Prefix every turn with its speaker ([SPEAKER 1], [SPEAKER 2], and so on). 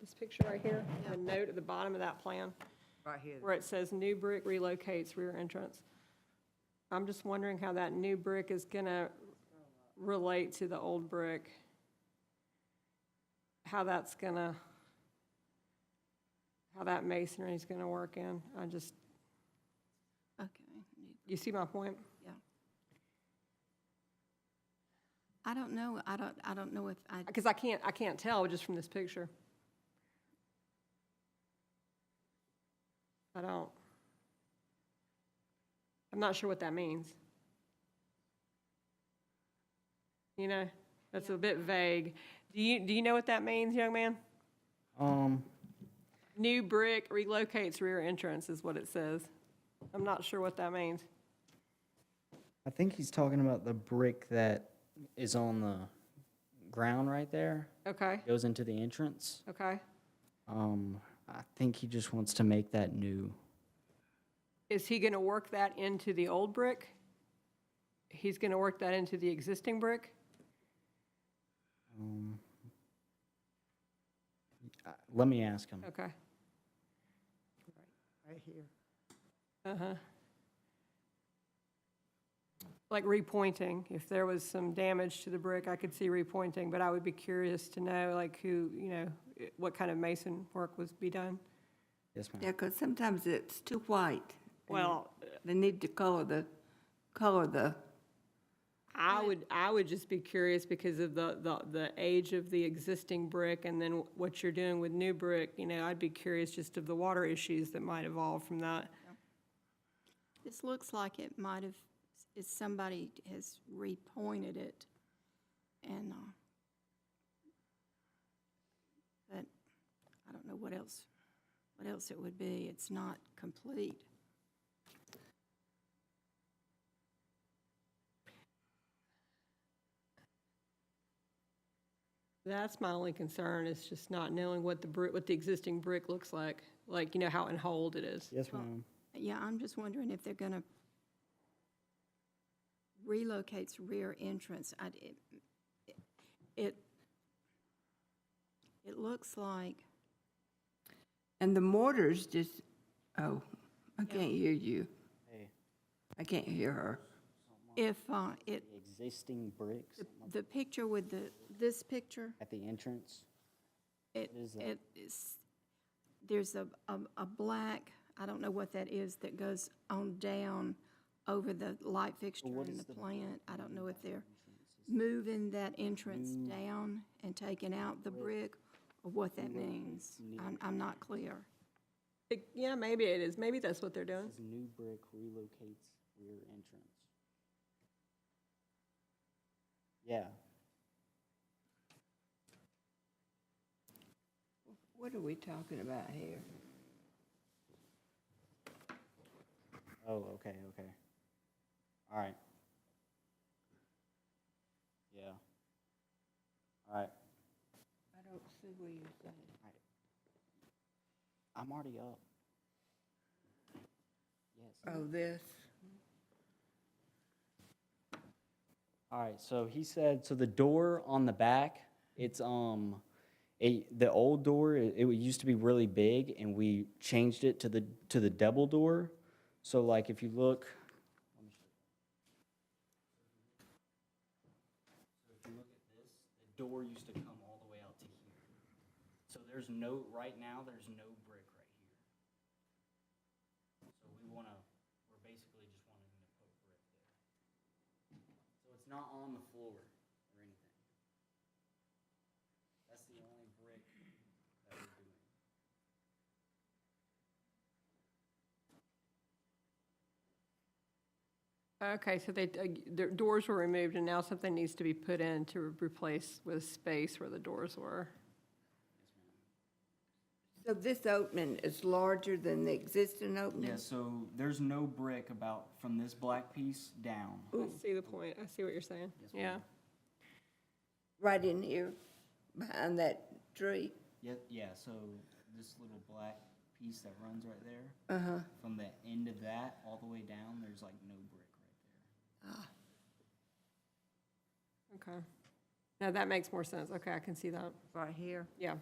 [SPEAKER 1] this picture right here, the note at the bottom of that plan,
[SPEAKER 2] Right here.
[SPEAKER 1] where it says new brick relocates rear entrance. I'm just wondering how that new brick is gonna relate to the old brick. How that's gonna, how that masonry's gonna work in. I just,
[SPEAKER 3] Okay.
[SPEAKER 1] you see my point?
[SPEAKER 3] I don't know, I don't, I don't know if I,
[SPEAKER 1] Because I can't, I can't tell just from this picture. I don't. I'm not sure what that means. You know, that's a bit vague. Do you, do you know what that means, young man?
[SPEAKER 4] Um,
[SPEAKER 1] New brick relocates rear entrance is what it says. I'm not sure what that means.
[SPEAKER 4] I think he's talking about the brick that is on the ground right there,
[SPEAKER 1] Okay,
[SPEAKER 4] goes into the entrance.
[SPEAKER 1] okay.
[SPEAKER 4] Um, I think he just wants to make that new.
[SPEAKER 1] Is he gonna work that into the old brick? He's gonna work that into the existing brick?
[SPEAKER 4] Um, uh, let me ask him.
[SPEAKER 1] Okay.
[SPEAKER 2] Right here.
[SPEAKER 1] Uh-huh. Like repointing, if there was some damage to the brick, I could see repointing, but I would be curious to know, like, who, you know, i- what kind of mason work was be done.
[SPEAKER 4] Yes, ma'am.
[SPEAKER 5] Yeah, because sometimes it's too white. and
[SPEAKER 1] Well,
[SPEAKER 5] They need to color the, color the,
[SPEAKER 1] I would, I would just be curious because of the, the, the age of the existing brick and then what you're doing with new brick, you know, I'd be curious just of the water issues that might evolve from that.
[SPEAKER 3] this looks like it might have, is somebody has repointed it and, uh, but I don't know what else, what else it would be. It's not complete.
[SPEAKER 1] That's my only concern, is just not knowing what the brick, what the existing brick looks like, like, you know, how in hold it is.
[SPEAKER 4] Yes,
[SPEAKER 3] Well,
[SPEAKER 4] ma'am.
[SPEAKER 3] Yeah, I'm just wondering if they're gonna relocates rear entrance. I, it- it, it looks like,
[SPEAKER 5] and the mortar's just, oh, I can't hear you. I can't hear her.
[SPEAKER 3] if, uh, it,
[SPEAKER 4] Existing bricks
[SPEAKER 3] the- the picture with the, this picture,
[SPEAKER 4] at the entrance.
[SPEAKER 3] it,
[SPEAKER 4] What is that?
[SPEAKER 3] it is, there's a, a, a black, I don't know what that is, that goes on down over the light fixture and the plant. I don't know if they're moving that entrance
[SPEAKER 4] Mm.
[SPEAKER 3] down and taking out the brick, or what that means. I'm, I'm not clear.
[SPEAKER 1] It- Yeah, maybe it is. Maybe that's what they're doing.
[SPEAKER 4] Says new brick relocates rear entrance. Yeah.
[SPEAKER 5] What are we talking about here?
[SPEAKER 4] Oh, okay, okay. All right. Yeah. All right.
[SPEAKER 5] I don't see where you're saying.
[SPEAKER 4] I'm already up. Yes.
[SPEAKER 5] Oh, this,
[SPEAKER 4] All right, so he said, so the door on the back, it's, um, it, the old door, it, it used to be really big and we changed it to the, to the double door. So like if you look, So if you look at this, the door used to come all the way out to here. So there's no, right now, there's no brick right here. So we wanna, we're basically just wanting to put brick there. So it's not on the floor or anything. That's the only brick that we're doing.
[SPEAKER 1] Okay, so they, uh, the doors were removed and now something needs to be put in to replace with space where the doors were.
[SPEAKER 5] so this opening is larger than the existing opening?
[SPEAKER 4] Yeah, so there's no brick about from this black piece down.
[SPEAKER 1] I see the point. I see what you're saying. Yeah.
[SPEAKER 5] Right in here, behind that tree?
[SPEAKER 4] Yeah, yeah, so this little black piece that runs right there. Uh-huh. From the end of that all the way down, there's like no brick right there.
[SPEAKER 1] Okay. Now that makes more sense. Okay, I can see that.
[SPEAKER 5] Right here?
[SPEAKER 1] Yeah.